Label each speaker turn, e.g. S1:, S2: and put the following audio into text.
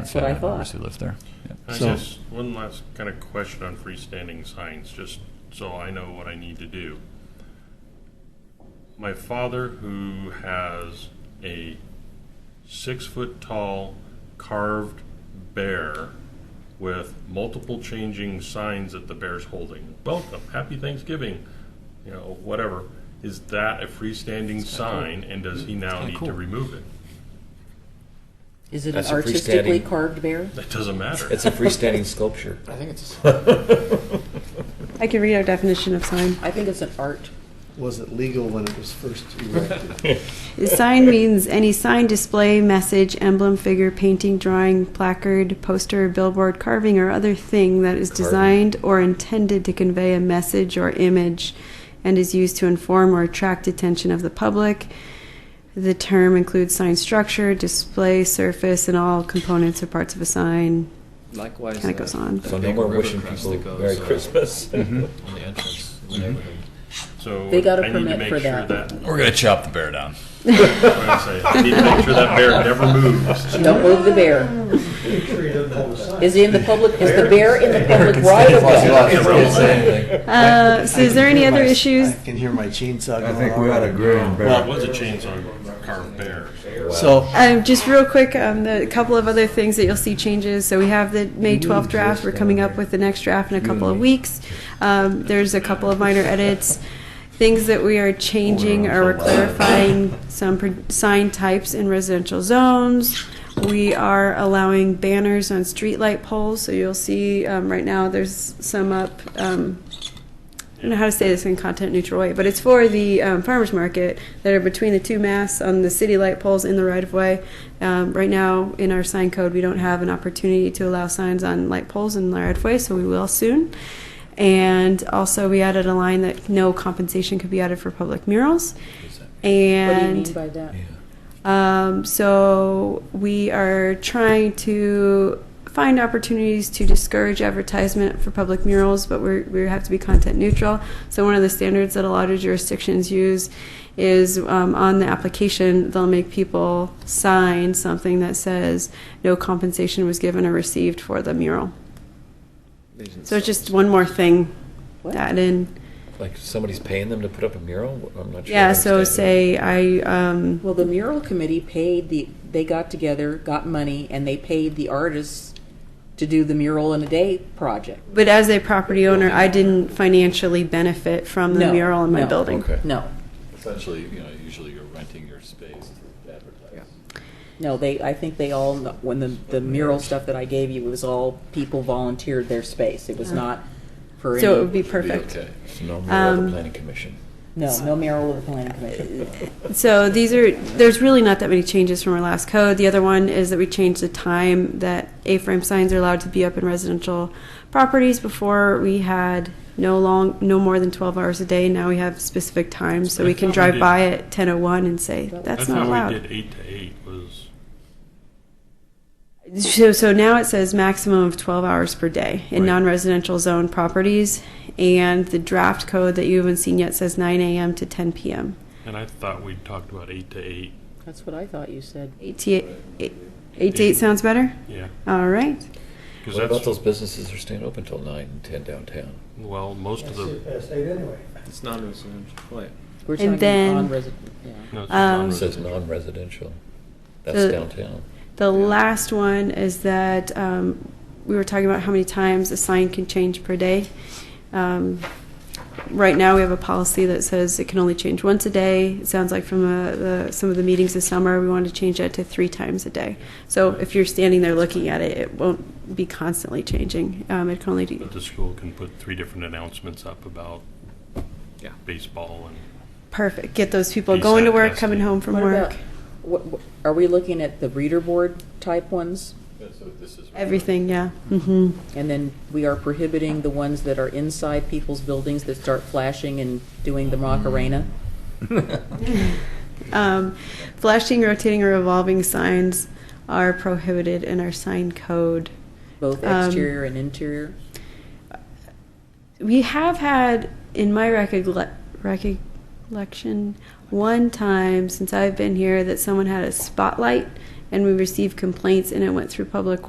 S1: That's what I
S2: family members
S1: thought.
S2: Who live there. Yeah.
S3: I
S4: So-
S3: guess one last kind of question on freestanding signs, just so I know what I need to do. My father, who has a six-foot-tall carved bear with multiple changing signs that the bear's holding, welcome, happy Thanksgiving, you know, whatever, is that a freestanding sign, and does he now
S2: kinda
S3: need
S2: cool.
S3: to remove it?
S1: Is it an
S4: That's a
S1: artistically
S4: freestanding-
S1: carved bear?
S3: That doesn't matter.
S4: It's a freestanding sculpture.
S5: I think it's,
S6: I can read our definition of sign.
S1: I think it's an art.
S5: was it legal when it was first erected?
S6: A sign means any sign, display, message, emblem, figure, painting, drawing, placard, poster, billboard, carving, or other thing that is
S4: Carving.
S6: designed or intended to convey a message or image and is used to inform or attract attention of the public. The term includes sign structure, display, surface, and all components or parts of a sign.
S7: Likewise,
S6: Kinda goes
S7: uh,
S6: on.
S7: the
S4: So no
S7: big
S4: more
S7: river
S4: wishing
S7: crest
S4: people
S7: that goes,
S4: Merry
S7: uh,
S4: Christmas.
S7: On the entrance in the neighborhood.
S3: So
S1: They got a
S3: I need to
S1: permit
S3: make
S1: for
S3: sure
S1: that.
S3: that
S2: We're gonna chop the bear down.
S3: what I say. I need to make sure that bear never moves.
S1: Don't move the bear. Is he in the public, is the bear in the public right of way?
S6: Uh, so, is there any other issues?
S5: I can hear my chainsaw going
S8: I think we ought to
S5: already.
S8: agree on
S3: Well,
S8: Barrett.
S3: it was a chainsaw carved bear.
S5: So,
S6: Um, just real quick, um, the a couple of other things that you'll see changes. So we have the May 12th draft. We're coming up with the next draft in a couple of weeks. Um, there's a couple of minor edits. Things that we are changing are we're clarifying some pro- sign types in residential zones. We are allowing banners on streetlight poles. So you'll see um, right now there's some up. Um, I don't know how to say this in content neutral way, but it's for the um, farmers market that are between the two masts on the city light poles in the right of way. Um, right now, in our sign code, we don't have an opportunity to allow signs on light poles in the right of way, so we will soon. And also, we added a line that no compensation could be added for public murals.
S1: What do you
S6: And
S1: mean by that?
S6: um, so we are trying to find opportunities to discourage advertisement for public murals, but we're, we have to be content neutral. So one of the standards that a lot of jurisdictions use is um, on the application, they'll make people sign something that says no compensation was given or received for the mural. So it's just one more thing
S1: What?
S6: to add in.
S4: Like somebody's paying them to put up a mural? I'm not sure. I
S6: Yeah, so
S4: understand.
S6: say I, um,
S1: Well, the mural committee paid the, they got together, got money, and they paid the artists to do the mural in a day project.
S6: But as a property owner, I didn't financially benefit from the
S1: No,
S6: mural in my
S1: no.
S6: building.
S4: Okay.
S1: No,
S7: Essentially, you know, usually you're renting your space to advertise.
S1: no, they, I think they all, when the, the mural stuff that I gave you, it was all people volunteered their space. It was not for
S6: Oh. So it would
S1: any,
S6: be perfect.
S7: Okay.
S4: So no mural of
S6: Um,
S4: the planning commission.
S1: no, no mural of the planning commission.
S6: Uh, So these are, there's really not that many changes from our last code. The other one is that we changed the time that A-frame signs are allowed to be up in residential properties. Before, we had no long, no more than 12 hours a day. Now we have specific times, so we can
S3: That's how we
S6: drive
S3: did-
S6: by at 10:01 and say, that's
S3: That's
S6: not
S3: how we
S6: allowed.
S3: did eight to eight was,
S6: So, so now it says maximum of 12 hours per day in
S3: Right.
S6: non-residential zone properties, and the draft code that you haven't seen yet says 9 a.m. to 10 p.m.
S3: and I thought we talked about eight to eight.
S1: That's what I thought you said.
S6: 8 to 8, 8 to 8 sounds better?
S3: Yeah,
S6: All right.
S3: because
S4: What about
S3: that's,
S4: those businesses that are staying open till nine and ten downtown?
S3: well, most of the,
S7: It's non-residential, right.
S1: We're
S6: And
S1: talking
S6: then-
S1: non-resident, yeah.
S3: no, it's
S6: Um,
S4: It says
S3: non-residential.
S4: non-residential. That's
S6: The-
S4: downtown.
S6: The last one is that um, we were talking about how many times a sign can change per day. Um, right now, we have a policy that says it can only change once a day. It sounds like from uh the, some of the meetings this summer, we want to change that to three times a day. So if you're standing there looking at it, it won't be constantly changing. Um, it can only do
S3: But the school can put three different announcements up about
S7: Yeah.
S3: baseball and.
S6: perfect. Get those people
S3: Be
S6: going to work,
S3: sarcastic.
S6: coming home from
S1: What
S6: work.
S1: about, what, what- are we looking at the reader board type ones?
S7: That's what this is.
S6: Everything, yeah. hmm
S1: And then we are prohibiting the ones that are inside people's buildings that start flashing and doing the Macarena?
S6: Um, flashing, rotating, or revolving signs are prohibited in our sign code.
S1: Both
S6: Um,
S1: exterior and interior?
S6: We have had, in my recogle- recollection, one time since I've been here that someone had a spotlight and we received complaints and it went through public